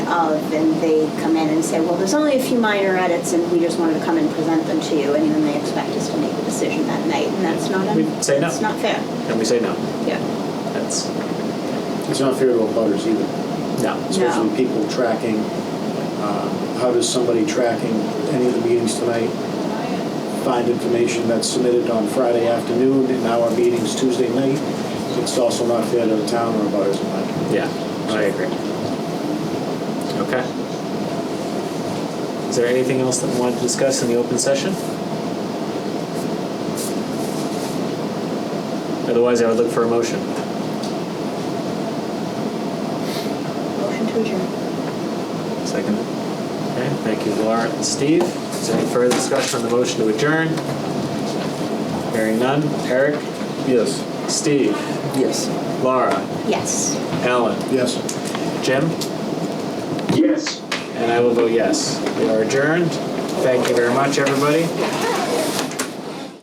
of, and they come in and say, well, there's only a few minor edits, and we just wanted to come and present them to you, and then they expect us to make a decision that night, and that's not, We say no. that's not fair. And we say no. Yeah. That's, It's not fair to abutters either, no. especially people tracking. Um, How does somebody tracking any of the meetings tonight find information that's submitted on Friday afternoon and now our meeting's Tuesday night? It's also not fair to the town or abutters in my opinion. Yeah, I agree. Okay. Is there anything else that we wanted to discuss in the open session? Otherwise, I would look for a motion. Motion to adjourn. Second. Okay, thank you, Laura and Steve. Is there any further discussion on the motion to adjourn? Hearing none. Eric? Yes. Steve? Yes. Laura? Yes. Alan? Yes. Jim? Yes. And I will vote yes. We are adjourned. Thank you very much, everybody.